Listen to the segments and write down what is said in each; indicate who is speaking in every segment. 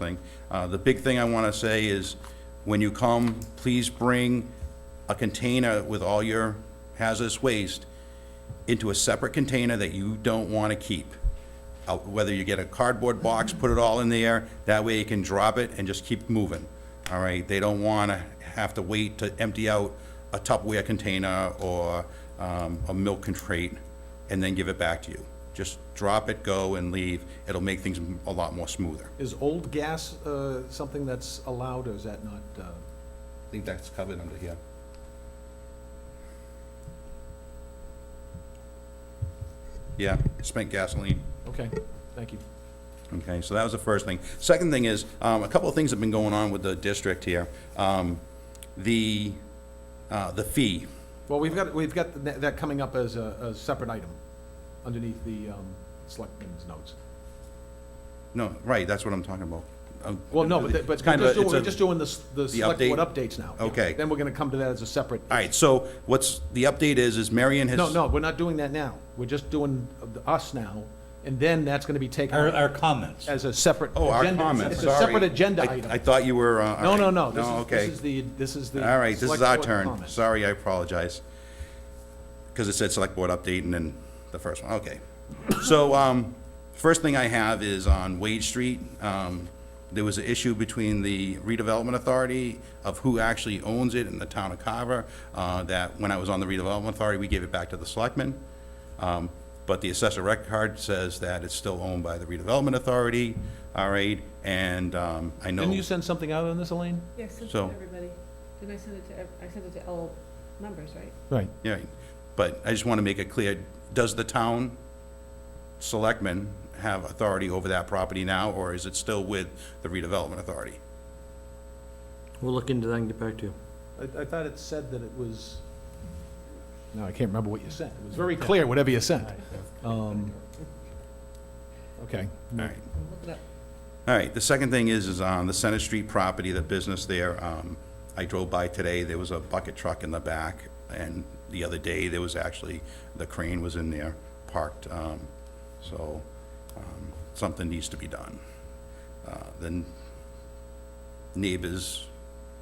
Speaker 1: thing. Uh, The big thing I want to say is, when you come, please bring a container with all your hazardous waste into a separate container that you don't want to keep. Uh, Whether you get a cardboard box, put it all in there, that way you can drop it and just keep moving, all right? They don't want to have to wait to empty out a Tupperware container or um, a milk crate and then give it back to you. Just drop it, go, and leave. It'll make things a lot more smoother.
Speaker 2: Is old gas uh, something that's allowed, or is that not? uh,
Speaker 1: I think that's covered under here. Yeah, spent gasoline.
Speaker 2: Okay, thank you.
Speaker 1: Okay, so that was the first thing. Second thing is, um, a couple of things have been going on with the district here. Um, the, uh, the fee,
Speaker 2: Well, we've got, we've got tha- that coming up as a, a separate item underneath the um, selectmen's notes.
Speaker 1: no, right, that's what I'm talking about. Um,
Speaker 2: Well, no, but, that- but
Speaker 1: it's kind of
Speaker 2: we're just
Speaker 1: a-
Speaker 2: doing-
Speaker 1: it's
Speaker 2: we're
Speaker 1: a-
Speaker 2: just doing the, s- the select
Speaker 1: update?
Speaker 2: board updates now.
Speaker 1: Okay. Uh,
Speaker 2: Then we're gonna come to that as a separate.
Speaker 1: All right, so what's, the update is, is Marion has.
Speaker 2: No, no, we're not doing that now. We're just doing the- us now, and then that's gonna be taken
Speaker 3: Our, our comments.
Speaker 2: as a separate.
Speaker 1: Oh, our
Speaker 2: agenda.
Speaker 1: comments,
Speaker 2: It's
Speaker 1: sorry.
Speaker 2: a separate agenda
Speaker 1: I- I
Speaker 2: item.
Speaker 1: thought you were, uh. all
Speaker 2: No,
Speaker 1: right.
Speaker 2: no, no, this
Speaker 1: No,
Speaker 2: is, this
Speaker 1: okay.
Speaker 2: is the, this is the.
Speaker 1: All right, this is
Speaker 2: select
Speaker 1: our
Speaker 2: board
Speaker 1: turn.
Speaker 2: comment.
Speaker 1: Sorry, I apologize. Because it said select board update and then the first one, okay. So, um, first thing I have is on Wade Street. Um, there was an issue between the redevelopment authority of who actually owns it and the town of Carver. Uh, that when I was on the redevelopment authority, we gave it back to the selectmen. Um, But the assessor record says that it's still owned by the redevelopment authority, all right? And, um, I know.
Speaker 2: Didn't you send something out on this, Elaine?
Speaker 4: Yeah, I sent it to
Speaker 1: So-
Speaker 4: everybody. Didn't I send it to, ev- I sent it to all members, right?
Speaker 2: Right.
Speaker 1: Yeah, but I just want to make it clear, does the town selectmen have authority over that property now, or is it still with the redevelopment authority?
Speaker 5: We'll look into that and get back to you.
Speaker 2: I, I thought it said that it was, no, I can't remember what you sent. It was very clear, whatever you sent. Um, Okay.
Speaker 1: All right.
Speaker 4: Look it up.
Speaker 1: All right, the second thing is, is on the Center Street property, the business there, um, I drove by today, there was a bucket truck in the back, and the other day, there was actually, the crane was in there parked, um, so, um, something needs to be done. Uh, then neighbors,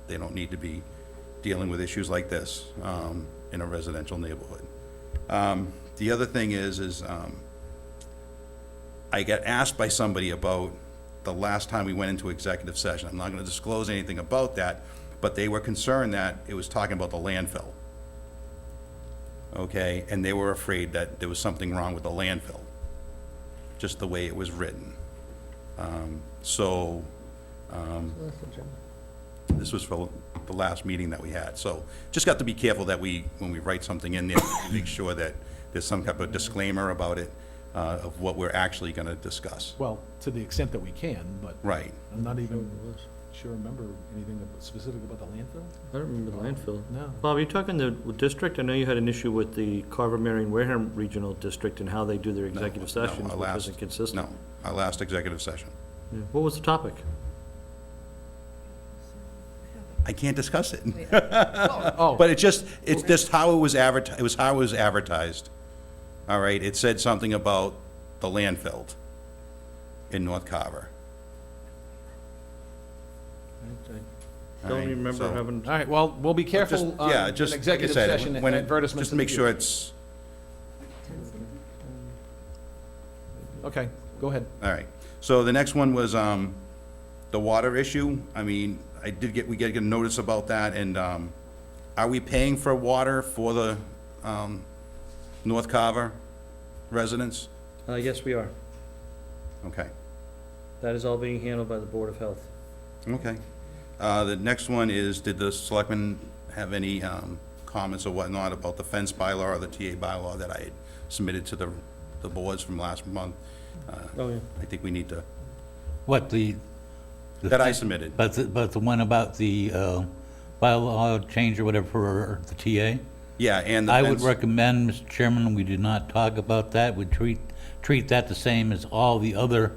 Speaker 1: they don't need to be dealing with issues like this, um, in a residential neighborhood. Um, the other thing is, is, um, I got asked by somebody about the last time we went into executive session. I'm not gonna disclose anything about that, but they were concerned that it was talking about the landfill. Okay, and they were afraid that there was something wrong with the landfill, just the way it was written. Um, So, um, this was for the last meeting that we had, so just got to be careful that we, when we write something in there, we make sure that there's some type of disclaimer about it, uh, of what we're actually gonna discuss.
Speaker 2: Well, to the extent that we can, but
Speaker 1: Right.
Speaker 2: I'm not even sure, remember anything ab- specific about the landfill?
Speaker 5: I don't remember the landfill.
Speaker 2: No.
Speaker 5: Bob, are you talking the district? I know you had an issue with the Carver, Marion, Wareham Regional District and how they do their executive
Speaker 1: No,
Speaker 5: sessions,
Speaker 1: our
Speaker 5: which
Speaker 1: last-
Speaker 5: wasn't consistent.
Speaker 1: No, our last executive session.
Speaker 5: Yeah. What was the topic?
Speaker 1: I can't discuss it,
Speaker 2: Oh,
Speaker 1: but it just, it's just how it was advertised, it was how it was advertised. All right, it said something about the landfill in North Carver.
Speaker 5: I Don't
Speaker 1: Alright,
Speaker 5: remember
Speaker 1: so-
Speaker 5: having,
Speaker 2: all right, well, we'll be
Speaker 1: Just-
Speaker 2: careful on
Speaker 1: yeah,
Speaker 2: an
Speaker 1: just like I
Speaker 2: executive
Speaker 1: said,
Speaker 2: session
Speaker 1: when
Speaker 2: and
Speaker 1: it-
Speaker 2: advertisements.
Speaker 1: Just
Speaker 2: in the
Speaker 1: make sure
Speaker 2: future.
Speaker 1: it's,
Speaker 2: Okay, go ahead.
Speaker 1: all right. So the next one was, um, the water issue. I mean, I did get, we get a notice about that, and, um, are we paying for water for the, um, North Carver residents?
Speaker 5: uh, yes, we are.
Speaker 1: Okay.
Speaker 5: That is all being handled by the Board of Health.
Speaker 1: Okay. Uh, The next one is, did the selectmen have any um, comments or whatnot about the fence bylaw or the TA bylaw that I had submitted to the, the boards from last month? Uh,
Speaker 5: Oh, yeah.
Speaker 1: I think we need to,
Speaker 3: What, the? the
Speaker 1: that I
Speaker 3: thing-
Speaker 1: submitted.
Speaker 3: But, the- but the one about the uh, bylaw change or whatever for the TA?
Speaker 1: Yeah, and the
Speaker 3: I would
Speaker 1: fence,
Speaker 3: recommend, Mr. Chairman, we do not talk about that. We treat, treat that the same as all the other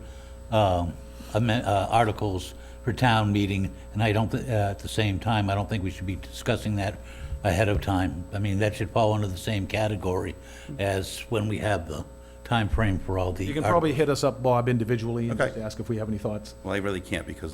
Speaker 3: um, amen- uh, articles for town meeting. And I don't, thi- uh, at the same time, I don't think we should be discussing that ahead of time. I mean, that should fall under the same category as when we have the time frame for all the.
Speaker 2: You can
Speaker 3: articles.
Speaker 2: probably hit us up, Bob, individually and
Speaker 1: uh, Okay.
Speaker 2: just ask if we have any thoughts.
Speaker 1: well, I really can't because